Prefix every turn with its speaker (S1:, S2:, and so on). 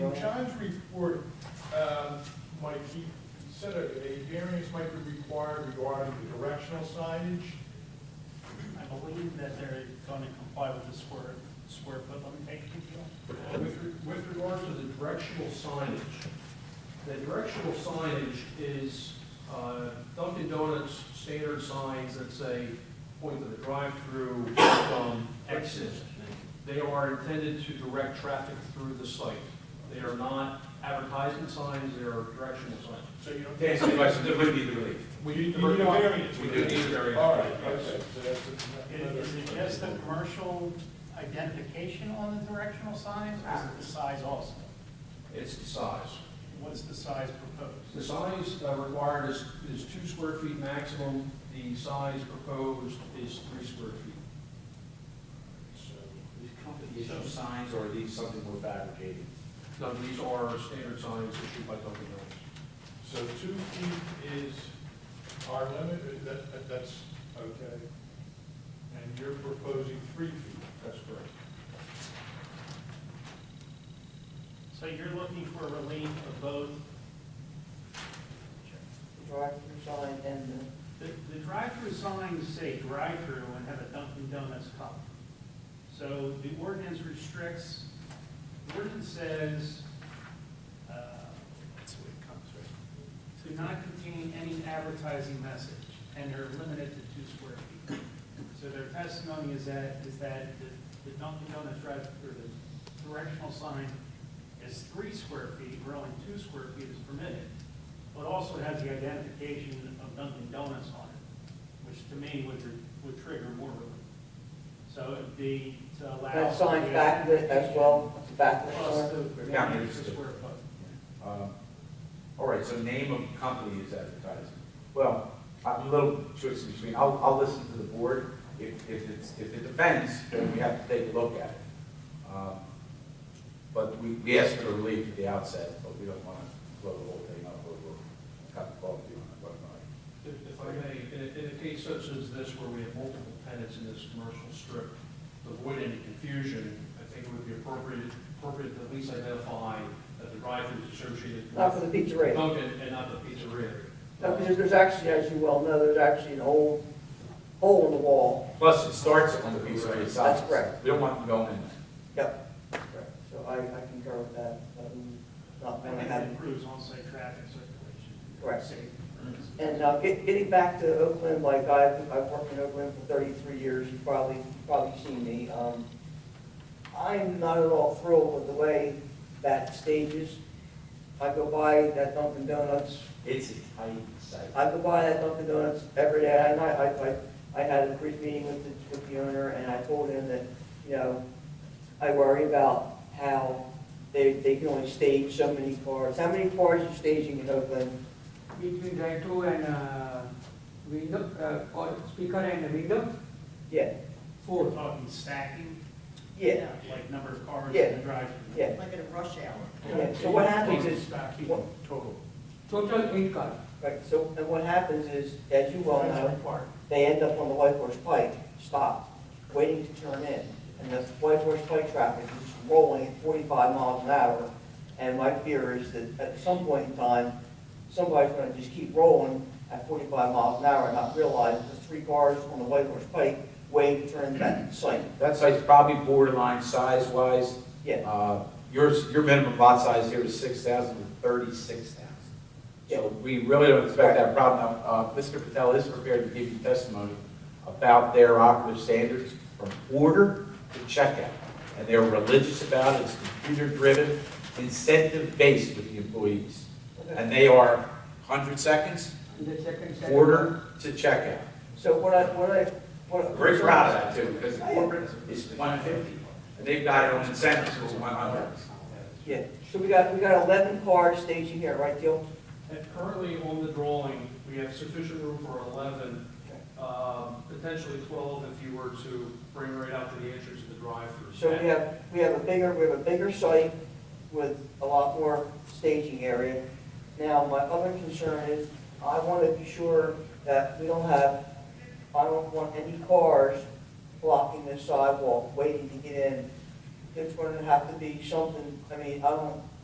S1: From John's report, um, Mike, he said a a variance might be required regarding the directional signage.
S2: I believe that they're going to comply with the square, square foot limitation deal.
S3: With, re- with regard to the directional signage, the directional signage is uh, Dunkin' Donuts standard signs that say, point to the drive-through from exit. They are intended to direct traffic through the site. They are not advertisement signs, they are directional signs.
S1: So you don't.
S4: To answer your question, there would be the relief.
S1: We need we need a variance.
S4: We do need a variance.
S1: All right, okay, so that's another.
S2: Is it just the commercial identification on the directional signs, or is it the size also?
S3: It's the size.
S2: What's the size proposed?
S3: The size uh, required is, is two square feet maximum, the size proposed is three square feet.
S4: These company issue signs, or are these something we're fabricating?
S3: Now, these are standard signs issued by Dunkin' Donuts.
S1: So two feet is our limit, that, that- that's, okay. And you're proposing three feet.
S3: That's correct.
S2: So you're looking for relief of both,
S5: drive-through sign and
S2: the, the drive-through signs say drive-through and have a Dunkin' Donuts cup. So the ordinance restricts, the ordinance says, uh, that's the way it comes, right? to not contain any advertising message, and they're limited to two square feet. So their testimony is that, is that the- the Dunkin' Donuts drive, or the directional sign is three square feet, where only two square feet is permitted, but also has the identification of Dunkin' Donuts on it, which to me would, tr- would trigger more relief. So it'd be to
S5: the,
S2: allow.
S5: that sign back with, as well, the back of the
S2: Plus
S5: store.
S2: the,
S4: Yeah, I
S2: the
S4: understand.
S2: extra square foot.
S4: Um, All right, so name of company is advertising. Well, I'm a little choice between, I'll, I'll listen to the board. If, if it's, if it offends, then we have to take a look at it. Um, But we, we asked for relief at the outset, but we don't want to blow the whole thing up over a cup of coffee on a whatnot.
S3: If if I may, in a, in a case such as this where we have multiple tenants in this commercial strip, to avoid any confusion, I think it would be appropriate, appropriate to at least identify that the drive-through is associated
S5: Not for
S3: with
S5: the pizzeria.
S3: Dunkin' and not the pizzeria.
S5: No, because there's actually, as you well know, there's actually an old hole in the wall.
S4: Plus, it starts on the piece of the side.
S5: That's correct.
S4: We don't want them going in there.
S5: Yep. So I, I concur with that, um, not
S2: And
S5: many
S2: that
S5: have.
S2: improves on-site traffic circulation.
S5: Correct.
S2: Safety.
S5: And uh, get- getting back to Oakland, like I've, I've worked in Oakland for 33 years, you've probably, probably seen me. Um, I'm not at all thrilled with the way that stages. I go by that Dunkin' Donuts
S4: It's a tight site.
S5: I go by that Dunkin' Donuts every day, and I, I, I, I had a brief meeting with the, with the owner, and I told him that, you know, I worry about how they, they can only stage so many cars. How many cars are staging in Oakland?
S6: between drive-through and uh, window, uh, or speaker and window,
S5: Yeah,
S2: We're
S6: four.
S2: talking stacking,
S5: yeah,
S2: like number of cars
S5: Yeah.
S2: in the drive-through.
S5: yeah.
S7: Like at a rush hour.
S5: Yeah, so what happens is-
S2: Stacking total.
S6: Total eight cars.
S5: Right, so, and what happens is, as you well
S2: That's
S5: know,
S2: required.
S5: they end up on the White Horse Pike, stopped, waiting to turn in. And the White Horse Pike traffic is just rolling at forty-five miles an hour. And my fear is that at some point in time, somebody's gonna just keep rolling at forty-five miles an hour and not realize the three cars on the White Horse Pike waiting to turn that site.
S4: That site's probably borderline size-wise.
S5: Yeah.
S4: Uh, Yours, your minimum lot size here is 6,000 to 36,000. So we really don't expect that problem. Now, uh, Mr. Patel is prepared to give you testimony about their operative standards from order to checkout. And they're religious about it, it's computer-driven, incentive-based with the employees. And they are 100 seconds,
S6: And the second set.
S4: order to checkout.
S5: So what I, what I, what.
S4: Very proud of that too, because
S5: Oh,
S4: corporate is one fifty, and they've got it on incentives for one hundred.
S5: Yeah, so we got, we got eleven cars staging here, right, Gil?
S3: And currently on the drawing, we have sufficient room for eleven, um, potentially twelve if you were to bring right out to the entrance of the drive-through.
S5: So we have, we have a bigger, we have a bigger site with a lot more staging area. Now, my other concern is, I want to be sure that we don't have, I don't want any cars blocking the sidewalk, waiting to get in. It's going to have to be something, I mean, I don't,